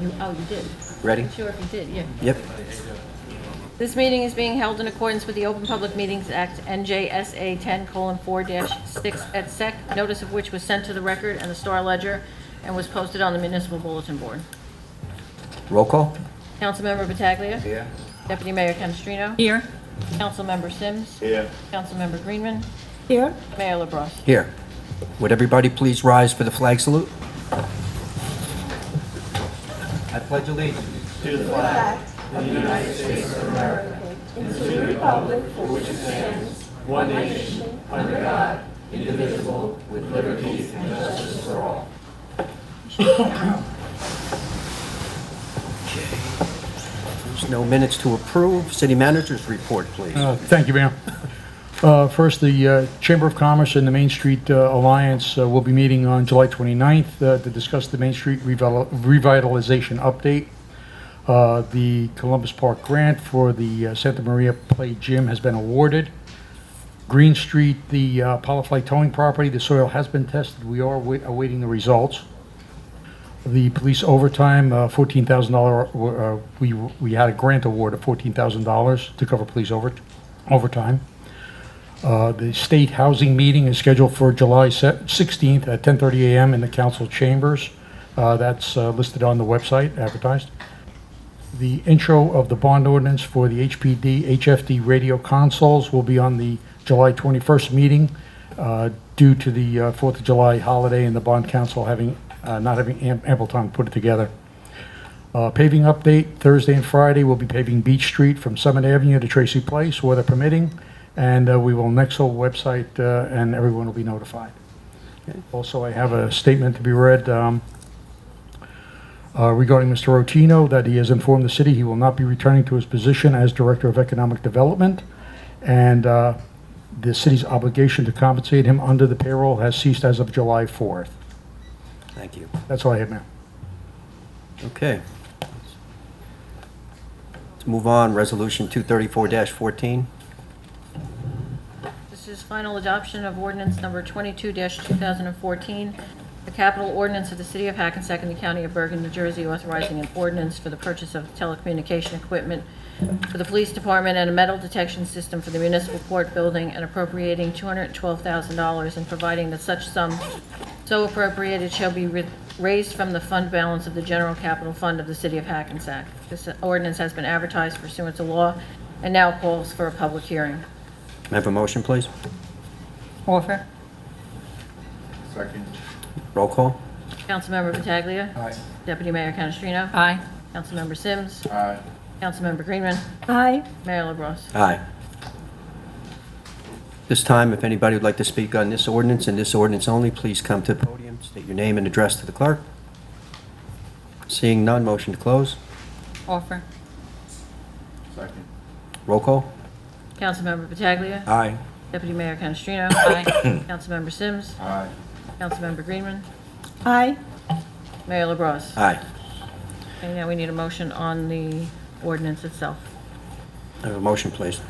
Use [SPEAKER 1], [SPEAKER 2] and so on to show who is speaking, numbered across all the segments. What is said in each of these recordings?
[SPEAKER 1] You, oh, you did?
[SPEAKER 2] Ready?
[SPEAKER 1] I'm Sure if you did, yeah.
[SPEAKER 2] Yep.
[SPEAKER 1] This meeting is being held in accordance with the Open Public Meetings Act, NJSA 10:4-6 et sec, notice of which was sent to the record and the Star Ledger and was posted on the municipal bulletin board.
[SPEAKER 2] Roll call?
[SPEAKER 1] Councilmember Pataglia.
[SPEAKER 2] Yeah.
[SPEAKER 1] Deputy Mayor Canestrino.
[SPEAKER 3] Here.
[SPEAKER 1] Councilmember Sims.
[SPEAKER 4] Here.
[SPEAKER 1] Councilmember Greenman.
[SPEAKER 3] Here.
[SPEAKER 1] Mayor LaBrus.
[SPEAKER 2] Here. Would everybody please rise for the flag salute? I pledge allegiance. There's no minutes to approve. City managers report, please.
[SPEAKER 5] Uh, Thank you, Mayor. Uh, First, the uh, Chamber of Commerce and the Main Street uh, Alliance uh, will be meeting on July 29th uh, to discuss the Main Street revital- revitalization update. Uh, The Columbus Park grant for the uh, Santa Maria Play Gym has been awarded. Green Street, the uh, Apollo Flight Towing property, the soil has been tested. We are wait- awaiting the results. The police overtime, uh, $14,000, uh, we we had a grant award of $14,000 to cover police over overtime. Uh, The state housing meeting is scheduled for July se- 16th at 10:30 a.m. in the council chambers. Uh, That's uh, listed on the website, advertised. The intro of the bond ordinance for the HPD, HFD radio consoles will be on the July 21st meeting uh, due to the uh, 4th of July holiday and the bond council having, uh, not having am- ample time to put it together. Uh, Paving update, Thursday and Friday, we'll be paving Beach Street from Summit Avenue to Tracy Place, weather permitting, and uh, we will next whole website, uh, and everyone will be notified. Also, I have a statement to be read um, uh, regarding Mr. Rotino, that he has informed the city he will not be returning to his position as Director of Economic Development, and uh, the city's obligation to compensate him under the payroll has ceased as of July 4th.
[SPEAKER 2] Thank you.
[SPEAKER 5] That's all I have, Mayor.
[SPEAKER 2] Okay. Let's move on. Resolution 234-14.
[SPEAKER 1] This is final adoption of ordinance number 22-2014, the capital ordinance of the City of Hackensack and the County of Bergen, New Jersey, authorizing an ordinance for the purchase of telecommunication equipment for the police department and a metal detection system for the municipal court building and appropriating $212,000 and providing that such sum so appropriated shall be ri- raised from the fund balance of the general capital fund of the City of Hackensack. This ordinance has been advertised pursuant to law and now calls for a public hearing.
[SPEAKER 2] May I have a motion, please?
[SPEAKER 3] Offer.
[SPEAKER 4] Second.
[SPEAKER 2] Roll call?
[SPEAKER 1] Councilmember Pataglia.
[SPEAKER 4] Aye.
[SPEAKER 1] Deputy Mayor Canestrino.
[SPEAKER 3] Aye.
[SPEAKER 1] Councilmember Sims.
[SPEAKER 4] Aye.
[SPEAKER 1] Councilmember Greenman.
[SPEAKER 3] Aye.
[SPEAKER 1] Mayor LaBrus.
[SPEAKER 2] Aye. This time, if anybody would like to speak on this ordinance and this ordinance only, please come to the podium, state your name and address to the clerk. Seeing none, motion to close.
[SPEAKER 3] Offer.
[SPEAKER 4] Second.
[SPEAKER 2] Roll call?
[SPEAKER 1] Councilmember Pataglia.
[SPEAKER 2] Aye.
[SPEAKER 1] Deputy Mayor Canestrino.
[SPEAKER 3] Aye.
[SPEAKER 1] Councilmember Sims.
[SPEAKER 4] Aye.
[SPEAKER 1] Councilmember Greenman.
[SPEAKER 3] Aye.
[SPEAKER 1] Mayor LaBrus.
[SPEAKER 2] Aye.
[SPEAKER 1] And now we need a motion on the ordinance itself.
[SPEAKER 2] May I have a motion, please.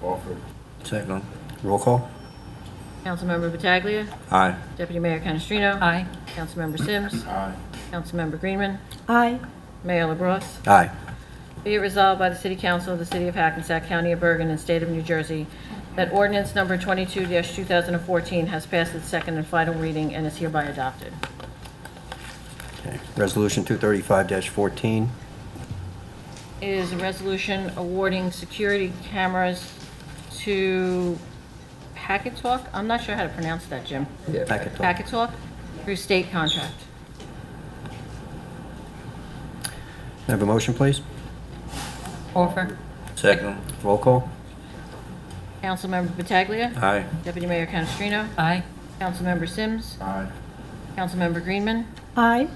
[SPEAKER 4] Offer.
[SPEAKER 2] Second. Roll call?
[SPEAKER 1] Councilmember Pataglia.
[SPEAKER 2] Aye.
[SPEAKER 1] Deputy Mayor Canestrino.
[SPEAKER 3] Aye.
[SPEAKER 1] Councilmember Sims.
[SPEAKER 4] Aye.
[SPEAKER 1] Councilmember Greenman.
[SPEAKER 3] Aye.
[SPEAKER 1] Mayor LaBrus.
[SPEAKER 2] Aye.
[SPEAKER 1] Be it resolved by the City Council of the City of Hackensack, County of Bergen, and State of New Jersey that ordinance number 22-2014 has passed its second and final reading and is hereby adopted.
[SPEAKER 2] Okay. Resolution 235-14.
[SPEAKER 1] It is a resolution awarding security cameras to Hackensack, I'm not sure how to pronounce that, Jim.
[SPEAKER 2] Packet talk.
[SPEAKER 1] Hackensack, through state contract.
[SPEAKER 2] May I have a motion, please?
[SPEAKER 3] Offer.
[SPEAKER 2] Second. Roll call?
[SPEAKER 1] Councilmember Pataglia.
[SPEAKER 2] Aye.
[SPEAKER 1] Deputy Mayor Canestrino.
[SPEAKER 3] Aye.
[SPEAKER 1] Councilmember Sims.
[SPEAKER 4] Aye.
[SPEAKER 1] Councilmember Greenman.
[SPEAKER 3] Aye.